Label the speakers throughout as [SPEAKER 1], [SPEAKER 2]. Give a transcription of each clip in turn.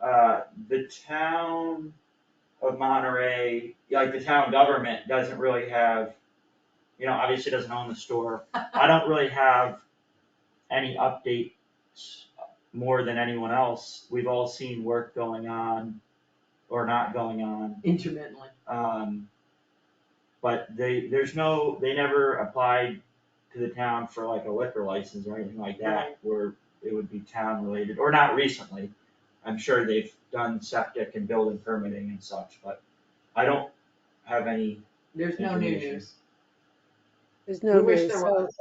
[SPEAKER 1] uh, the town of Monterey, like the town government doesn't really have, you know, obviously doesn't own the store. I don't really have any updates more than anyone else. We've all seen work going on or not going on.
[SPEAKER 2] intermittently.
[SPEAKER 1] Um, but they, there's no, they never applied to the town for like a liquor license or anything like that, where it would be town related, or not recently. I'm sure they've done septic and building permitting and such, but I don't have any,
[SPEAKER 2] There's no new
[SPEAKER 1] Information.
[SPEAKER 2] news.
[SPEAKER 3] There's
[SPEAKER 2] We
[SPEAKER 3] no
[SPEAKER 2] wish
[SPEAKER 3] news,
[SPEAKER 2] there
[SPEAKER 3] so,
[SPEAKER 2] was.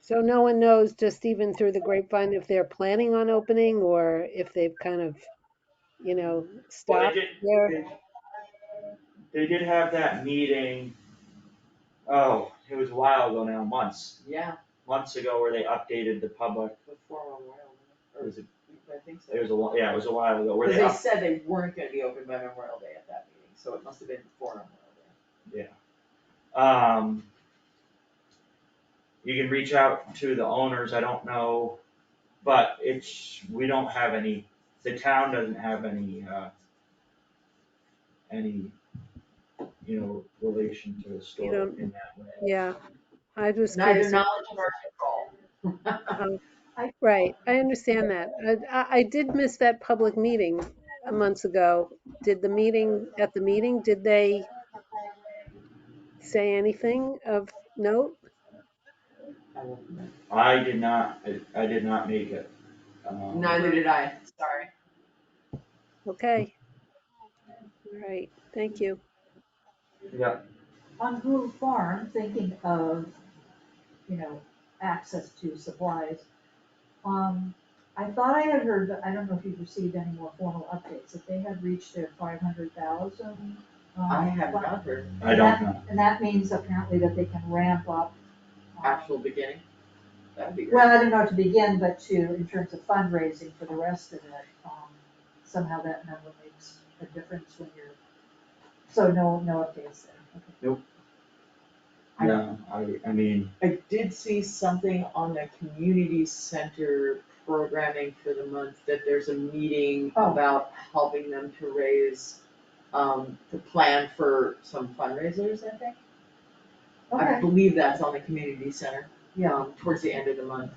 [SPEAKER 3] so no one knows, just even through the grapevine, if they're planning on opening or if they've kind of, you know,
[SPEAKER 1] well, they
[SPEAKER 3] stopped
[SPEAKER 1] did,
[SPEAKER 3] there.
[SPEAKER 1] they- They did have that meeting, oh, it was a while ago now, months,
[SPEAKER 2] Yeah,
[SPEAKER 1] months ago where they updated the public,
[SPEAKER 2] before Memorial Day,
[SPEAKER 1] it was, a-
[SPEAKER 2] or I think so.
[SPEAKER 1] it was a, whi- yeah, it was a while ago where
[SPEAKER 2] Cause
[SPEAKER 1] they
[SPEAKER 2] they
[SPEAKER 1] up-
[SPEAKER 2] said they weren't gonna be open by Memorial Day at that meeting, so it must have been before Memorial Day.
[SPEAKER 1] Yeah. Um. You can reach out to the owners, I don't know, but it's, we don't have any, the town doesn't have any, uh. Any, you know, relation to the store
[SPEAKER 3] don't-
[SPEAKER 1] in that way.
[SPEAKER 3] Yeah, I was
[SPEAKER 2] Neither
[SPEAKER 3] curious,
[SPEAKER 2] knowledge nor control.
[SPEAKER 3] right, I understand that. I- I, I did miss that public meeting months ago. Did the meeting, at the meeting, did they say anything of note?
[SPEAKER 2] I won't remember.
[SPEAKER 1] I did not, I- I did not make it. Um,
[SPEAKER 2] Neither did I, sorry.
[SPEAKER 3] Okay. All right, thank you.
[SPEAKER 1] Yeah,
[SPEAKER 4] on Google Farm, thinking of, you know, access to supplies. Um, I thought I had heard, but I don't know if you've received any more formal updates, that they had reached their five hundred thousand. um,
[SPEAKER 2] I have not heard
[SPEAKER 1] I don't know.
[SPEAKER 4] And that means apparently that they can ramp up. um,
[SPEAKER 2] actual beginning. That'd be
[SPEAKER 4] Well,
[SPEAKER 2] great.
[SPEAKER 4] I don't know to begin, but to, in terms of fundraising for the rest of it, um, somehow that number makes a difference when you're, so no, no updates there, okay.
[SPEAKER 2] I-
[SPEAKER 1] No, I, I mean,
[SPEAKER 2] I did see something on the community center programming for the month, that there's a meeting
[SPEAKER 4] Oh.
[SPEAKER 2] about helping them to raise, um, the plan for some fundraisers, I think. I
[SPEAKER 4] Okay,
[SPEAKER 2] believe that's on the community center,
[SPEAKER 4] yeah.
[SPEAKER 2] um, towards the end of the month.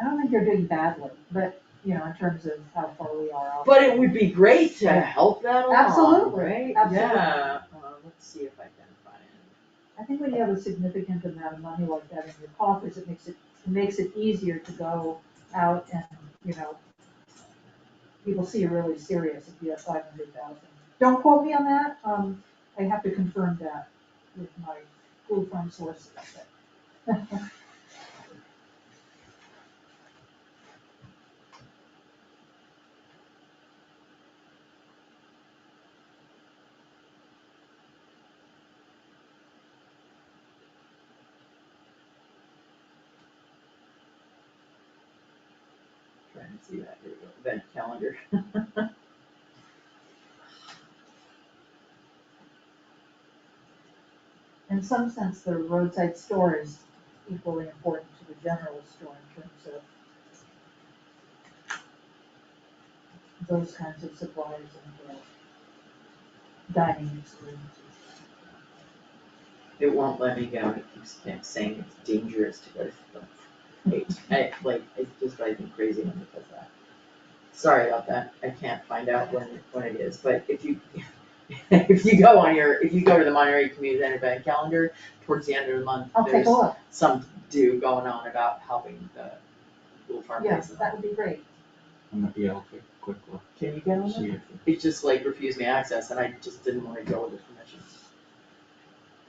[SPEAKER 4] I don't think you're doing badly, but, you know, in terms of how far we are off.
[SPEAKER 2] But it would be great to help that along, right?
[SPEAKER 4] Absolutely, absolutely.
[SPEAKER 2] Yeah, uh, let's see if I can find it.
[SPEAKER 4] I think when you have a significant amount of money like that in your coffers, it makes it, it makes it easier to go out and, you know, people see you're really serious if you have five hundred thousand. Don't quote me on that, um, I have to confirm that with my Google Farm sources, but.
[SPEAKER 2] Trying to see that, here we go, event calendar.
[SPEAKER 4] In some sense, the roadside store is equally important to the general store in terms of those kinds of suppliers and the dining experiences.
[SPEAKER 2] It won't let me go, it keeps kept saying it's dangerous to go to the page, I, like, it just drives me crazy when it does that. Sorry about that, I can't find out when, when it is, but if you, if you go on your, if you go to the Monterey Community Center event calendar, towards the end of the month,
[SPEAKER 4] I'll take
[SPEAKER 2] there's
[SPEAKER 4] a look,
[SPEAKER 2] some do going on about helping the little farm
[SPEAKER 4] yes,
[SPEAKER 2] raise
[SPEAKER 4] that would be great.
[SPEAKER 1] I'm not- yeah, I'll take a quick look,
[SPEAKER 2] Can you get on
[SPEAKER 1] see
[SPEAKER 2] that?
[SPEAKER 1] if.
[SPEAKER 2] It just like refused me access and I just didn't wanna go with the permission.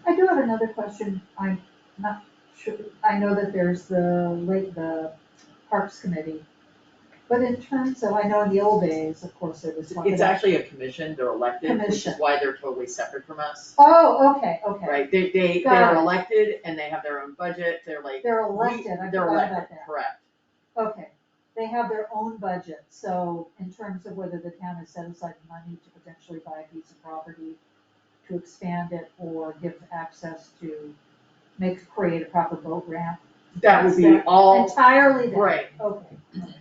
[SPEAKER 4] I do have another question, I'm not sure, I know that there's the late, the Parks Committee, but in terms of, I know in the old days, of course, there was talk
[SPEAKER 2] It's
[SPEAKER 4] about-
[SPEAKER 2] actually a commission, they're elected, which is
[SPEAKER 4] Commission.
[SPEAKER 2] why they're totally separate from us.
[SPEAKER 4] Oh, okay, okay.
[SPEAKER 2] Right, they, they,
[SPEAKER 4] Got
[SPEAKER 2] they're
[SPEAKER 4] it.
[SPEAKER 2] elected and they have their own budget, they're like,
[SPEAKER 4] They're
[SPEAKER 2] we-
[SPEAKER 4] elected, I
[SPEAKER 2] they're
[SPEAKER 4] forgot about
[SPEAKER 2] elected,
[SPEAKER 4] that.
[SPEAKER 2] correct.
[SPEAKER 4] Okay, they have their own budget, so in terms of whether the town has set aside money to potentially buy a piece of property, to expand it or give access to, make, create a proper boat ramp,
[SPEAKER 2] That would be
[SPEAKER 4] That's
[SPEAKER 2] all,
[SPEAKER 4] entirely that,
[SPEAKER 2] right,
[SPEAKER 4] okay. okay.